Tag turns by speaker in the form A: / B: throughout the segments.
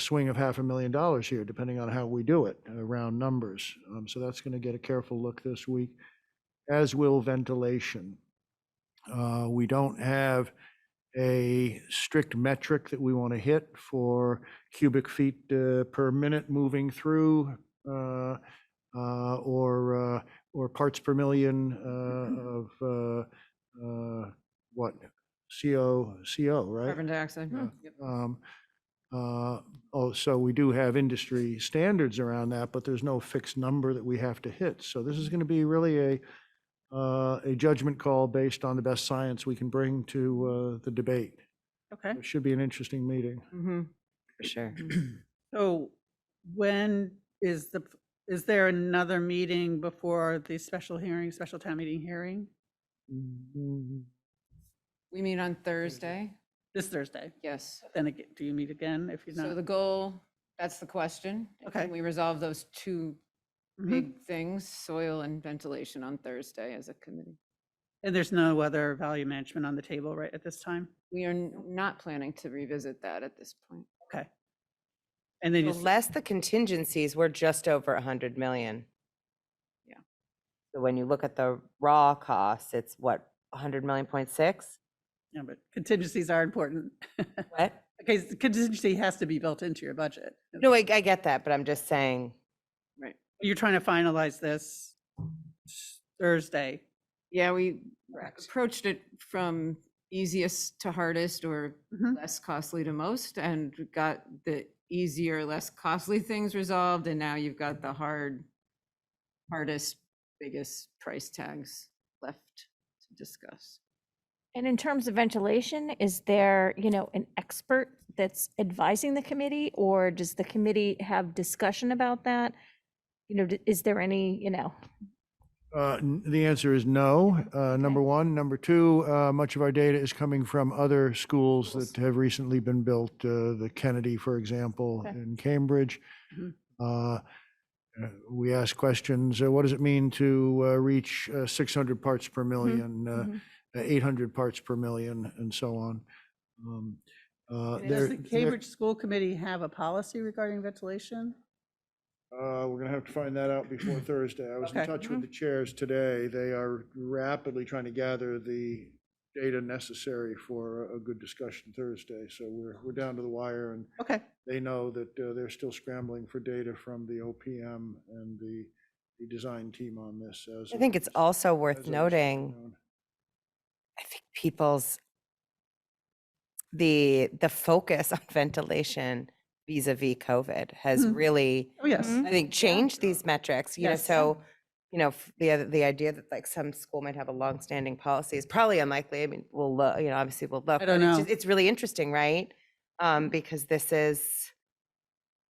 A: swing of half a million dollars here, depending on how we do it, uh, round numbers. Um, So that's going to get a careful look this week, as will ventilation. Uh, We don't have a strict metric that we want to hit for cubic feet uh, per minute moving through uh, uh, or, uh, or parts per million uh, of uh, uh, what? CO, CO, right?
B: Carbon dioxide.
A: Yeah.
B: Yep.
A: Um, uh, Oh, so we do have industry standards around that, but there's no fixed number that we have to hit. So this is going to be really a, uh, a judgment call based on the best science we can bring to uh, the debate.
C: Okay.
A: It should be an interesting meeting.
B: Mhm. For sure.
C: So when is the, is there another meeting before the special hearing, special town meeting hearing?
A: Mm-hmm.
B: We meet on Thursday,
C: This Thursday?
B: yes.
C: Then again, do you meet again if you're
B: So the
C: not?
B: goal, that's the question. and
C: Okay.
B: We resolve those two
C: Mhm.
B: big things, soil and ventilation on Thursday as a committee.
C: And there's no other value management on the table right at this time?
B: We are n- not planning to revisit that at this point.
C: Okay. And then you,
D: Well,
C: s-
D: Less the contingencies, we're just over a hundred million.
B: Yeah.
D: So when you look at the raw costs, it's what, a hundred million point six?
C: yeah, but contingencies are important.
D: What?
C: Okay, s- contingency has to be built into your budget.
D: No, I, I get that, but I'm just saying,
C: You're trying to finalize this s- Thursday.
B: Yeah, we
C: Correct.
B: approached it from easiest to hardest or
C: Mhm.
B: less costly to most and got the easier, less costly things resolved. And now you've got the hard, hardest, biggest price tags left to discuss.
E: And in terms of ventilation, is there, you know, an expert that's advising the committee? Or does the committee have discussion about that? You know, d- is there any, you know,
A: Uh, n- The answer is no, uh, number one. Number two, uh, much of our data is coming from other schools that have recently been built, uh, the Kennedy, for example,
E: Okay.
A: in Cambridge.
C: Mhm.
A: Uh, uh, We ask questions, uh, what does it mean to uh, reach uh, 600 parts per million, uh,
E: mhm.
A: 800 parts per million, and so on? Um, uh,
C: And
A: there-
C: Does the
A: there-
C: Cambridge School Committee have a policy regarding ventilation?
A: Uh, We're going to have to find that out before Thursday. I was in
C: Okay.
A: touch with the chairs today. They are rapidly trying to gather the data necessary for a- a good discussion Thursday. So we're, we're down to the wire and
C: Okay,
A: they know that uh, they're still scrambling for data from the OPM and the, the design team on this as.
D: I
A: of-
D: think it's also
A: as
D: worth
A: of this
D: noting,
A: afternoon.
D: I think people's, the, the focus on ventilation vis-a-vis COVID has
C: Mhm.
D: really
C: oh, yes.
D: I think change these metrics, you know,
C: Yes.
D: so, you know, f- the, other- the idea that like some school might have a longstanding policy is probably unlikely. I mean, we'll, look, you know, obviously we'll look.
C: I don't
D: but it's just-
C: know.
D: It's really interesting, right? Um, because this is,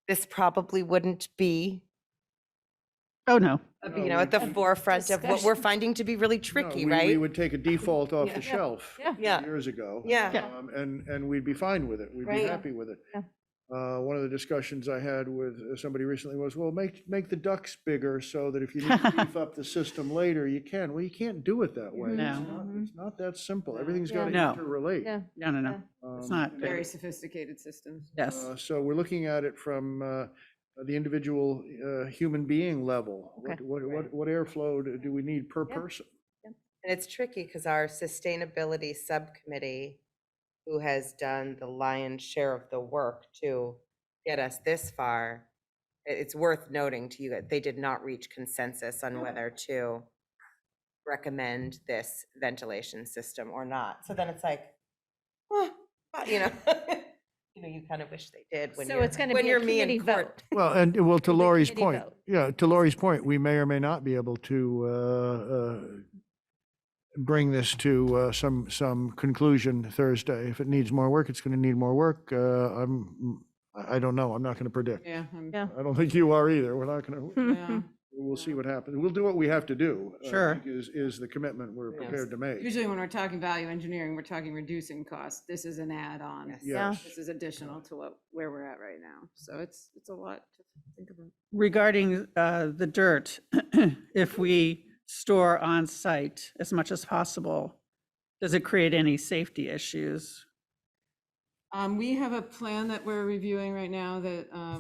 D: this probably wouldn't be,
C: Oh, no.
D: uh,
A: No,
D: you know, at
A: we-
D: the forefront of what we're
E: Discussion.
D: finding to be really
A: No,
D: tricky,
A: we- We
D: right?
A: would take a default off
B: Yeah.
A: the shelf.
B: Yeah.
D: Yeah.
A: Years ago.
D: Yeah.
C: Yeah.
A: um, And, and we'd be fine with it. We'd be
D: Right.
A: happy with it.
E: Yeah.
A: Uh, One of the discussions I had with uh, somebody recently was, well, make, make the ducks bigger so that if you need to beef up the system later, you can. Well, you can't do it that way. It's
C: No.
A: not- It's not that simple. Everything's
E: Yeah.
A: got to
C: No.
A: interrelate.
E: Yeah.
C: No, no, no. It's not
A: Um,
C: big.
B: Very sophisticated systems.
C: Yes.
A: uh, So we're looking at it from uh, the individual uh, human being level.
E: Okay.
A: What- What, what, what airflow do- do we need per
E: Yeah.
A: person?
D: And it's tricky because our sustainability subcommittee, who has done the lion's share of the work to get us this far, i- it's worth noting to you that they did not reach consensus
E: Mm.
D: on whether to recommend this ventilation system or not. So then it's like, "Huh, but," you know, you know, you kind of wish they did when
E: So
D: you're,
E: it's gonna
D: when
E: be a
D: you're me in
E: committee
D: court.
E: vote.
A: Well, and well, to
E: Will the
A: Lori's
E: committee
A: point,
E: vote?
A: yeah, to Lori's point, we may or may not be able to uh, uh, bring this to uh, some, some conclusion Thursday. If it needs more work, it's going to need more work. Uh, I'm, I I don't know. I'm not going to predict.
B: Yeah. Hmm. I'm-
E: Yeah.
A: I don't think you are either. We're not going to,
B: yeah.
A: we'll see what happens. We'll do what we have to do. uh, I
C: Sure.
A: think Is, is the commitment we're
D: Yes.
A: prepared to make.
B: Usually when we're talking value engineering, we're talking reducing costs. This is an add-on.
D: Yes.
E: Yeah.
A: Yes.
B: This is additional to what, where we're at right now. So it's, it's a lot to think about.
C: Regarding uh, the dirt, if we store on-site as much as possible, does it create any safety issues?
B: Um, we have a plan that we're reviewing right now that, uh,